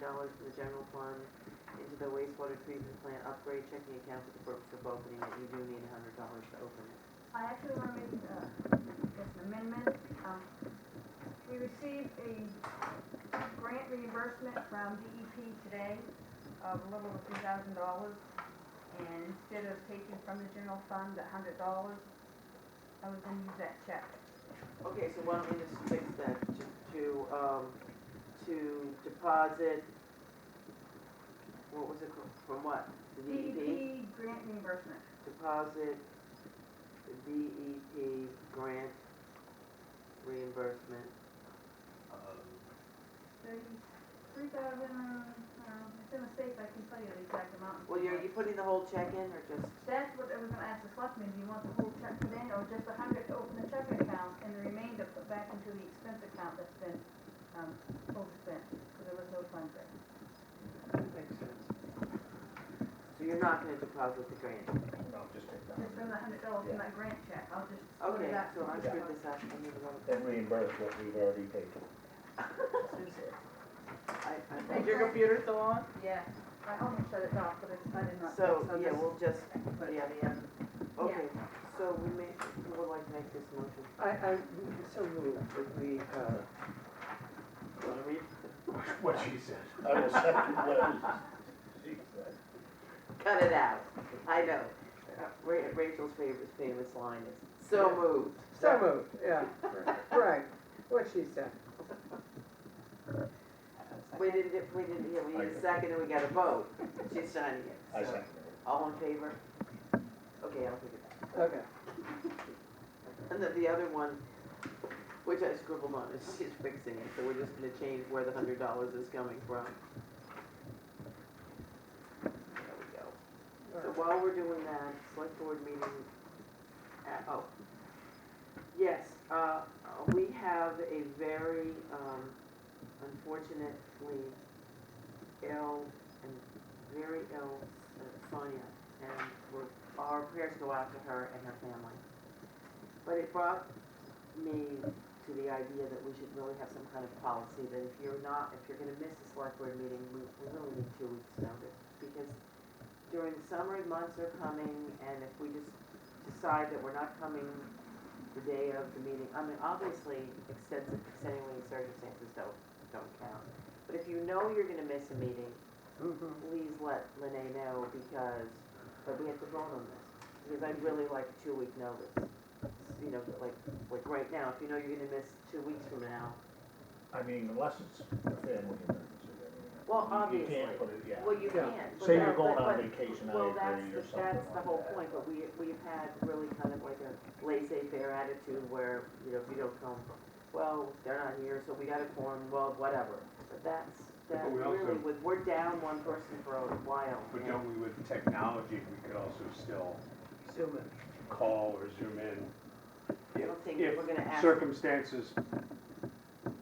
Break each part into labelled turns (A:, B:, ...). A: dollars from the general fund into the wastewater treatment plant upgrade checking account for the purpose of opening it. You do need a hundred dollars to open it.
B: I actually want to make uh, just an amendment. Um, We received a grant reimbursement from DEP today of a little over three thousand dollars. And instead of taking from the general fund the hundred dollars, I was gonna use that check.
A: Okay, so why don't we just fix that to, to, um, to deposit, what was it, from- from what? The DEP?
B: DEP E grant reimbursement.
A: Deposit the DEP grant reimbursement.
B: Thirty-three thousand, uh, it's a mistake, I can tell you the exact amount.
A: Well, you're, you putting the whole check in or just,
B: That's what I was gonna ask the selectmen, do you want the whole check put in, or just a hundred to open the checking account, and the remainder put back into the expense account that's been, um, overspent, because there was no funds there.
A: makes sense. So you're not gonna deposit the grant?
C: No, just take that.
B: Just from the hundred dollars from that grant check, I'll just split
A: Okay,
B: it up.
A: so I screwed this up, I need to go.
C: And reimburse what we've already paid.
A: I- I- Is your computer still on?
B: Yeah, I almost shut it off, but it's, I did not.
A: So,
B: so
A: yeah,
B: just-
A: we'll just,
B: Put
A: yeah,
B: it in.
A: okay, so we may, we would like to make this motion.
D: I, I, so moved that we, uh,
A: Wanna read?
E: What she said.
C: I will second what she said.
A: Cut it out, I know. Uh, Ra- Rachel's favorite famous line is, so moved.
D: so moved, yeah, right, what she said.
A: We didn't, get- we didn't, yeah, we need a second and we got a vote, she's signing it.
C: I
A: so.
C: second
A: All in favor? Okay, I'll take it back.
D: Okay,
A: And then the other one, which I scribbled on, is she's fixing it, so we're just gonna change where the hundred dollars is coming from. There we go. So while we're doing that, select board meeting, at- oh. Yes, uh, we have a very, um, unfortunately ill and very ill uh, Sonia. And we're, our prayers go out to her and her family. But it brought me to the idea that we should really have some kind of policy that if you're not, if you're gonna miss a select board meeting, we, we really need two weeks' notice. Because during the summer, months are coming, and if we just decide that we're not coming the day of the meeting, I mean, obviously, extensive, extenuating circumstances don't, don't count. But if you know you're gonna miss a meeting,
D: mhm.
A: please let Lene know because, but we have to vote on this. Because I'd really like a two-week notice, you know, like, like right now, if you know you're gonna miss two weeks from now.
C: I mean, unless it's a family emergency. I mean,
A: Well,
C: you- You
A: obviously.
C: can't put it, yeah.
A: Well, you
D: Yeah.
A: can. but
C: Say
A: that-
C: you're going
A: but-
C: on
A: but-
C: vacation, I
A: Well, that's,
C: agree, or
A: the-
C: something like
A: that's
C: that.
A: the whole point, but we, we've had really kind of like a laissez-faire attitude where, you know, if you don't come, well, they're not here, so we gotta form, well, whatever. But that's, that
E: But we also-
A: really, with- we're down one person for a while.
E: But
A: and-
E: don't we, with technology, we could also still
D: Zoom in.
E: call or zoom in.
A: I don't think
E: If-
A: we're gonna
E: If
A: ask-
E: circumstances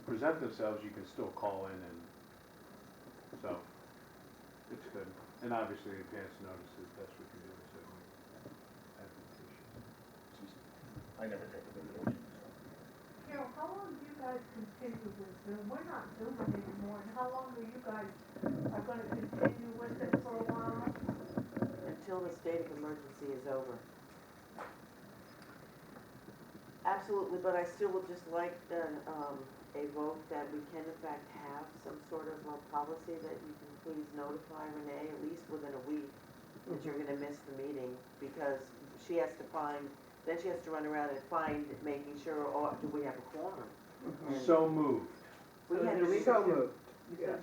E: present themselves, you can still call in and, so, it's good. And obviously, advance notice is best we can do, so we have the
C: I never take a vacation,
F: Carol, how long do you guys continue with Zoom? We're not Zooming anymore, and how long are you guys, are gonna continue with it for a while?
A: until the state of emergency is over. Absolutely, but I still would just like then, um, a vote that we can in fact have some sort of a policy that you can please notify Renee at least within a week that you're gonna miss the meeting because she has to find, then she has to run around and find, making sure, oh, do we have a quorum?
E: issue. So moved.
A: We had
D: Mm-hmm. So
A: to
D: moved, yes.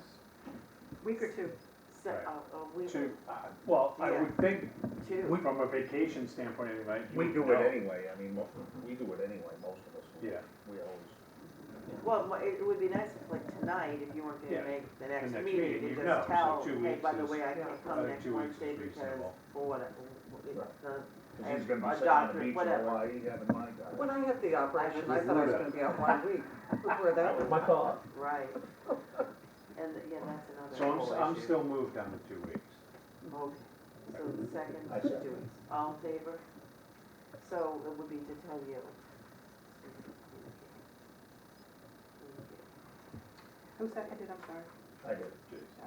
A: Week or two. So,
E: Right.
A: uh, a week or
E: To, uh, well, I would think,
A: two.
E: from a vacation standpoint, anyway. you
C: We
E: would
C: do
E: know.
C: it anyway, I mean, mo- we do it anyway, most of us. We-
E: Yeah.
C: We always,
A: Well, mo- it would be nice if like tonight, if you weren't gonna
E: Yeah.
A: make the next
E: next
A: meeting,
E: meeting,
A: you
E: you'd know.
A: just
E: So
A: tell,
E: two
A: hey,
E: weeks
A: by the
E: is-
A: way, I can't come
E: Uh,
A: next
E: two weeks
A: Wednesday
E: is
A: because,
E: reasonable.
A: for what, it's
C: Right.
A: not-
C: because he's
A: I-
C: gonna
A: my
C: be sitting on
A: doctor-
C: the beach in
A: whatever.
C: Hawaii having my guy.
D: When I had the operation, I thought I was gonna be out one week before that.
C: That was my thought.
A: right. And, yeah, that's another.
E: So I'm, s-
A: whole
E: I'm
A: issue.
E: still moved on the two weeks.
A: Okay, so the second,
C: I
A: two
C: second.
A: weeks, all in favor? So it would be to tell you.
G: Who seconded, I'm sorry?
C: I did.